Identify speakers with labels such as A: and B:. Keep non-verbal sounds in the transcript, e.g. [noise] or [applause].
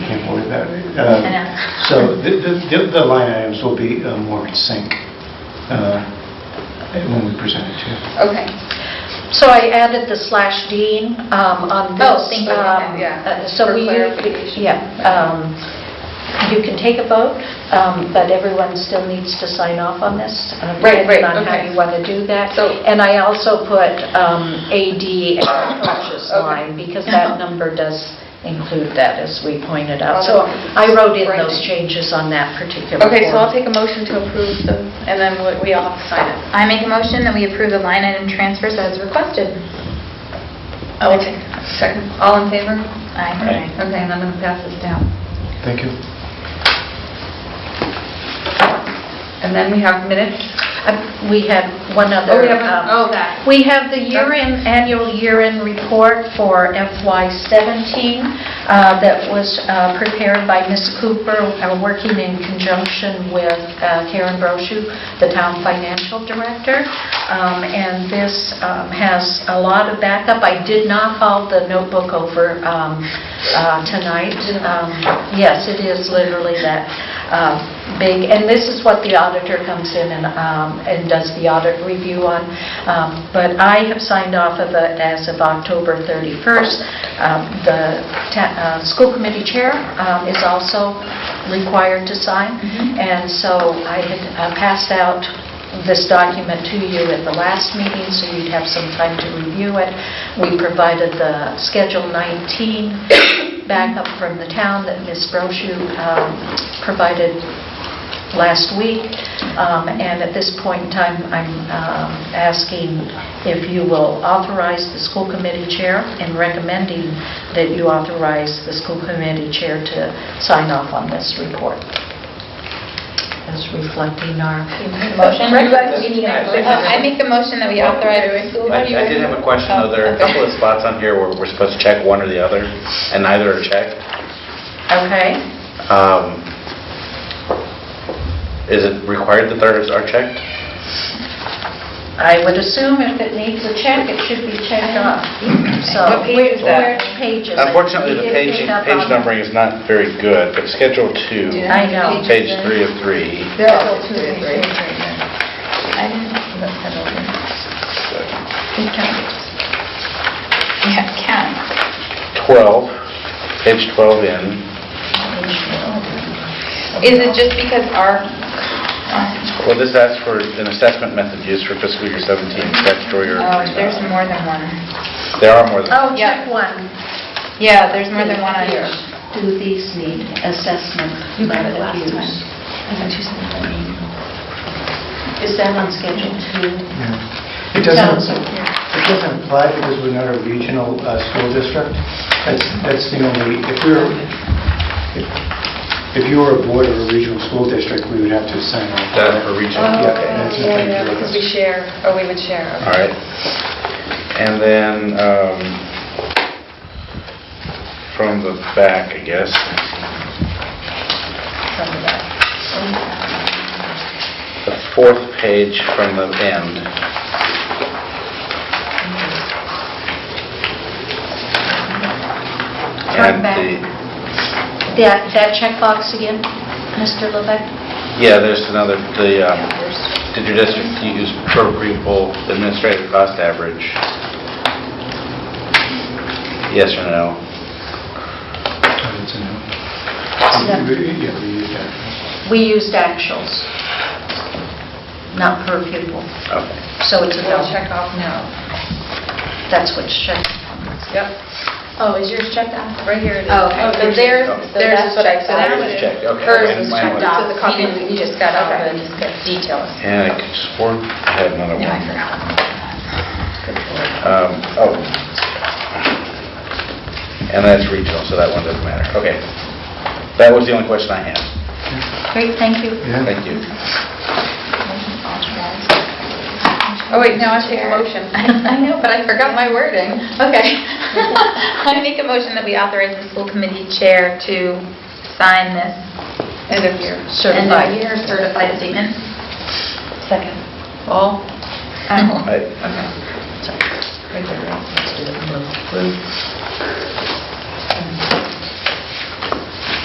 A: can't believe that.
B: I know.
A: Uh, So the- the- the the line items will be uh, more in sync uh, when we present it to you.
B: Okay.
C: So I added the slash dean um, on this.
B: Oh, thank you.
C: um,
B: Okay, yeah.
C: uh, So
B: For
C: we,
B: clarification.
C: yeah, um, you can take a vote, um, but everyone still needs to sign off on this. uh,
B: Right, right,
C: Depending on how
B: okay.
C: you want to do that.
B: So-
C: And I also put um, AD as a purchase
B: Okay.
C: line, because that number does include that, as we pointed out.
B: Well,
C: So
B: then-
C: I wrote in
B: Right.
C: those changes on that particular
D: Okay, so I'll
C: form.
D: take a motion to approve the, and then we- we all have to sign it.
B: I make a motion that we approve the line item transfers as requested.
D: I will take second.
B: All in favor?
A: Aye.
B: Aye. Okay, and I'm going to pass this down.
A: Thank you.
B: And then we have minutes.
C: Uh, We had one other...
B: Oh, we have,
C: um,
B: a- oh, that.
C: We have the year-end, annual year-end report for FY17 uh, that was uh, prepared by Ms. Cooper, uh, working in conjunction with uh, Karen Brochu, the town financial director. Um, And this um, has a lot of backup. I did not haul the notebook over um, uh, tonight. Um, Yes, it is literally that um, big. And this is what the auditor comes in and um, and does the audit review on. Um, But I have signed off of it as of October 31st. Um, The ta- uh, school committee chair um, is also required to sign,
B: Mhm.
C: and so I had uh, passed out this document to you at the last meeting, so you'd have some time to review it. We provided the Schedule 19 backup from the town that Ms. Brochu um, provided last week, Um, and at this point in time, I'm um, asking if you will authorize the school committee chair and recommending that you authorize the school committee chair to sign off on this report, as reflecting our...
B: Motion?
D: Recommend.
B: We need a motion. Uh, I make a motion that we authorize the school.
E: I I did have a question, though. There are a couple of spots on here where we're supposed to check one or the other, and neither are checked.
C: Okay?
E: Um, Is it required that theirs are checked?
C: I would assume if it needs a check, it should be checked off. So
D: What page is
C: where-
D: that?
C: where Pages. I
E: Unfortunately,
C: think you
E: the page
C: picked up
E: page
C: on-
E: numbering is not very good, but Schedule 2,
C: I know.
E: page 3 of 3.
D: There are still two or three.
B: I didn't.
E: so
B: We counted. Yeah, count.
E: 12, page 12 in.
B: Is it just because our, um,
E: Well, this asks for an assessment method used for fiscal year 17 statutory or...
B: oh, there's more than one.
E: There are more than...
C: Oh,
B: Yeah.
C: check one.
B: Yeah, there's more than one on
C: Here.
B: here.
C: Do these need assessment method use? Is that on schedule two?
A: Yeah. It doesn't, it doesn't apply because we're not a regional uh, school district. That's, that's the only, if we were, if- if you were a board of a regional school district, we would have to sign off.
E: That for regional,
A: Yeah,
E: okay.
A: that's the
D: Oh, Yeah,
A: thing.
D: yeah, because we share, or we would share. okay.
E: All right. And then, um, from the back, I guess, the fourth page from the end.
C: Front
E: And
C: back.
E: the-
C: That, that checkbox again, Mr. Levesque?
E: Yeah, there's another, the, um,
B: Oh,
E: did your district use appropriable administrative cost average? Yes or no?
A: Oh, that's a no.
C: Yeah.
A: We- we- Yeah, we use that.
C: We used actuals, not per pupil.
E: Okay.
C: So it's a
D: We'll
C: double.
D: check off now.
C: That's what's checked.
D: Yep,
B: Oh, is yours checked off?
D: right here it is.
B: Oh, okay.
D: so theirs,
E: So
D: theirs
B: that's
D: is what I
B: checked
D: said.
B: off.
D: that
E: Yours is
D: was-
E: checked, okay.
D: Hers
E: Mine-
D: was
E: mine
D: checked
E: was-
D: off,
B: So the
D: you
B: copy-
D: didn't- you just got all the details.
E: And I could swear I had another one.
B: No, I forgot.
E: Um, Oh. And that's regional, so that one doesn't matter. Okay. That was the only question I had.
C: Great, thank you.
A: Yeah.
E: Thank you.
D: Oh, wait, now I take a motion.
B: [laughs] I know, but I forgot my wording. Okay. [laughs] I make a motion that we authorize the school committee chair to sign this
D: End of year.
B: end of
C: Certified.
B: year certified statement.
C: Second.
B: [laughs] Oh.
D: All?
E: I-
C: Sorry. Right there, right. Let's do it in blue.